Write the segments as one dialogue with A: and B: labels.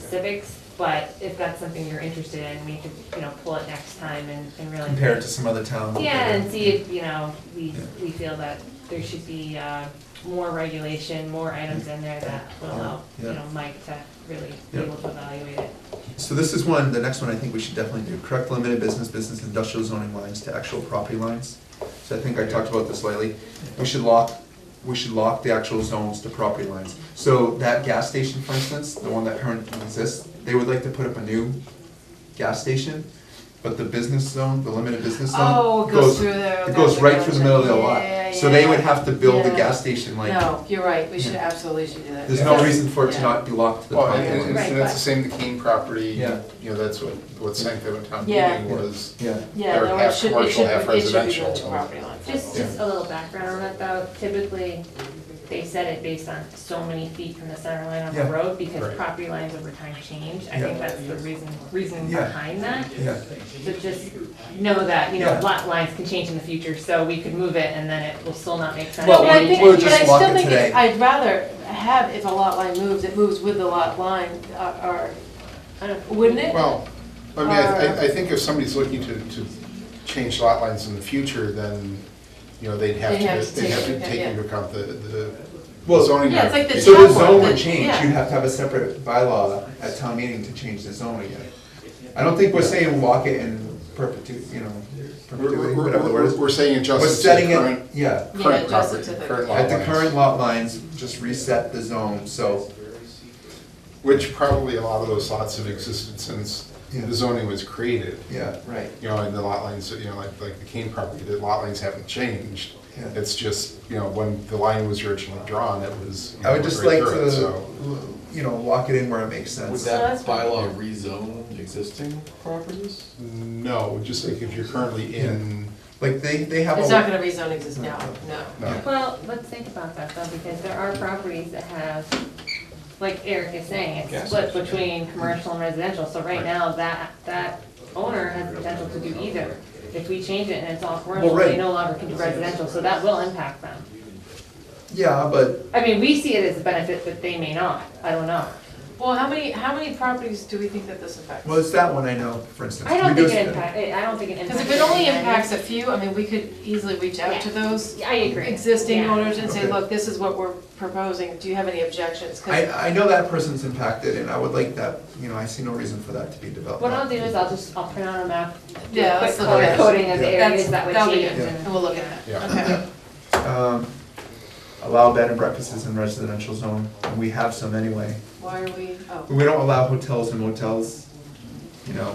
A: specifics, but if that's something you're interested in, we could, you know, pull it next time and, and really.
B: compare it to some other town.
A: Yeah, and see if, you know, we,
B: Yeah.
A: we feel that there should be, uh, more regulation, more items in there that will allow, you
B: Yeah.
A: know, Mike to really be
B: Yeah.
A: able to evaluate it.
B: So this is one, the next one I think we should definitely do, correct limited business, business industrial zoning lines to actual property lines. So I think I talked about this lately, we should lock, we should lock the actual zones to property lines. So that gas station, for instance, the one that currently exists, they would like to put up a new gas station, but the business zone, the limited business zone.
C: Oh, it goes through the.
B: It goes right through the middle of their lot,
C: Yeah,
B: so they
C: yeah.
B: would have to build the
C: Yeah.
B: gas station like,
C: No, you're right, we should
B: Yeah.
C: absolutely should do that.
B: there's no
C: Yeah.
B: reason for it to
C: Yeah.
B: not be locked to the
D: Well,
B: property
D: and,
B: lines.
D: and- and that's the same, the Kane property, you
B: Yeah.
D: know, that's what, what Sanko Town
C: Yeah.
D: Meeting was.
B: Yeah.
C: Yeah,
D: or
C: no, it
D: half
C: should, it
D: commercial,
C: should,
D: half
C: it should be going to
D: residential.
C: property lines.
A: Just, just a little background on that though, typically, they set it based on so many feet from the center line of the
B: Yeah.
A: road, because
D: Right.
A: property lines over time change, I
B: Yeah.
A: think that's the reason, reason
B: Yeah.
A: behind that.
B: Yeah,
A: So just know that, you know,
B: Yeah.
A: lot lines can change in the future, so we could move it and then it will still not make sense.
B: Well,
C: No, but I
B: we-
C: think,
B: we'll
C: but
B: just
C: I
B: lock it
C: still think
B: today.
C: it's, I'd rather have, if a lot line moves, it moves with the lot line, uh, or,
A: I don't-
C: wouldn't it?
D: Well, I mean, I, I- I think if somebody's looking to, to change lot lines in the future, then, you know, they'd have
C: They have
D: to,
C: to
D: they'd have
C: take-
D: to take
C: yeah.
D: into account the, the
B: Well,
D: zoning.
C: Yeah, it's like the
D: modifications.
B: So the
C: Town
B: zone
C: board,
B: would change,
C: yeah.
B: you'd have to have a separate bylaw at town meeting to change the zone again. I don't think we're saying walk it in perpetuity, you know,
D: We're,
B: perpetuity,
D: we're-
B: whatever the word
D: we're,
B: is.
D: we're saying
B: We're
D: adjustments to the
B: setting
D: current,
B: it, yeah,
C: Yeah,
D: current
C: adjustments to
D: property,
C: the-
D: current lot
B: at
D: lines.
B: the current lot lines, just reset the zone, so,
D: Which probably a lot of those lots have existed since
B: Yeah.
D: the zoning was created.
B: yeah, right.
D: You know, and the lot lines, you know, like, like the Kane property, the lot lines haven't changed.
B: Yeah.
D: It's just, you know, when the line was originally drawn, it was. you
B: I would
D: know,
B: just
D: right
B: like
D: through it,
B: to,
D: so-
B: you know, walk it in where it makes
E: Would
B: sense.
E: that
C: that's fine.
E: bylaw rezone existing properties?
D: No, just like if you're currently in,
B: Like, they, they have.
C: It's
B: a-
C: not gonna rezone exist now, no.
D: no,
A: Well, let's think about that though, because there are properties that have, like Eric is saying, it's
E: Gas
A: split
E: station,
A: between commercial and residential, so right now, that, that owner has the potential to do either. If we change it and it's all commercial,
B: right.
A: they no longer can do residential, so that will impact them.
B: Yeah, but,
A: I mean, we see it as a benefit, but they may not, I don't know.
C: Well, how many, how many properties do we think that this affects?
B: well, it's that one I know, for instance.
A: I don't think
B: Reduce-
A: it impact, I don't think it impacts.
C: Because if it only
A: everybody.
C: impacts a few, I mean, we could easily reach out to those
A: Yeah, I agree.
C: existing
A: Yeah.
C: owners and say,
B: Okay.
C: look, this is what we're proposing, do you have any objections? 'Cause-
B: I, I know that person's impacted, and I would like that, you know, I see no reason for that to be developed.
A: What I'll do is I'll just, I'll print out a map, do a
C: Yeah, let's
A: quick
C: look
A: color
C: at it.
A: coding of the areas
C: That's,
A: that would
C: that'll be
A: change.
C: good,
A: and-
C: and we'll look at
D: Yeah.
C: that, okay.
B: Um, Allow bed and breakfasts in residential zone, and we have some anyway.
C: Why are we, oh.
B: But we don't allow hotels and motels, you know.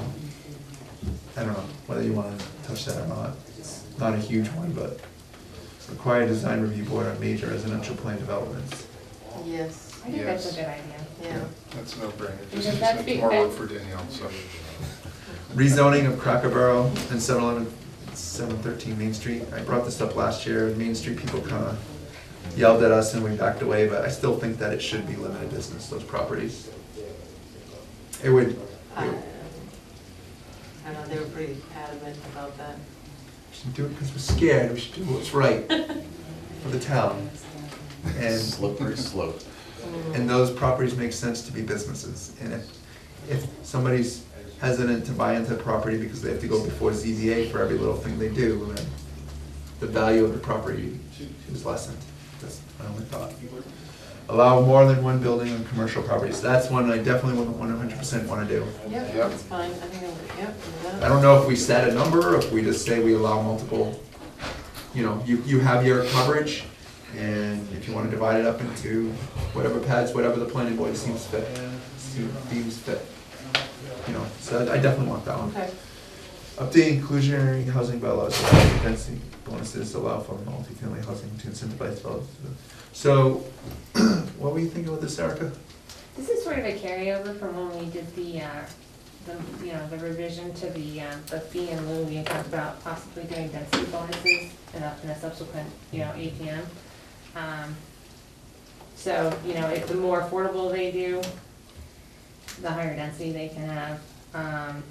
B: I don't know whether you wanna touch that or not. It's not a huge one, but require design review board on major residential plan developments.
C: Yes,
A: I think that's a good idea.
C: yeah.
D: that's no brainer.
A: Because that's
D: It's
A: the-
D: more work for Danielle, so.
B: Rezoning of Cracker Barrel and 711 713 Main Street. I brought this up last year, and Main Street people kinda yelled at us and we backed away, but I still think that it should be limited business, those properties. It would,
C: Um, I don't know, they were pretty adamant about that.
B: We should do it because we're scared. We should do what's right for the town. And,
E: Slippery slope.
B: and those properties make sense to be businesses. And if, if somebody's hesitant to buy into a property because they have to go before ZBA for every little thing they do, then the value of the property is lessened. That's my only thought. Allow more than one building on commercial properties. That's one I definitely wouldn't one hundred percent wanna do.
C: Yep,
D: Yep.
C: that's fine, I think, I'm- yep, do
B: I
C: that.
B: don't know if we set a number, if we just say we allow multiple, you know, you, you have your coverage, and if you wanna divide it up into whatever pads, whatever the planning board seems fit, seems fit. You know, so I definitely want that one.
C: okay.
B: Update inclusionary housing bylaws, allow density bonuses allow for multifamily housing to incentivize development. So, what were you thinking about this, Erica?
A: This is sort of a carryover from when we did the, uh, the, you know, the revision to the, um, the fee and lieu. We had talked about possibly doing density bonuses in a, in a subsequent, you know, APM. Um, So, you know, if the more affordable they do, the higher density they can have. Um,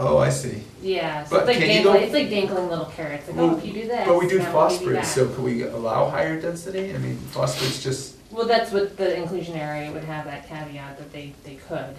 B: Oh, I see.
A: Yeah, so
B: But
A: it's like
B: can you go-
A: dangling, it's like dangling little carrots, like, oh, if you do this,
B: But we do
A: now we'll give you
B: phosphorus,
A: that.
B: so could we allow higher density? I mean, phosphorus just
A: Well, that's what the inclusionary would have that caveat that they, they could.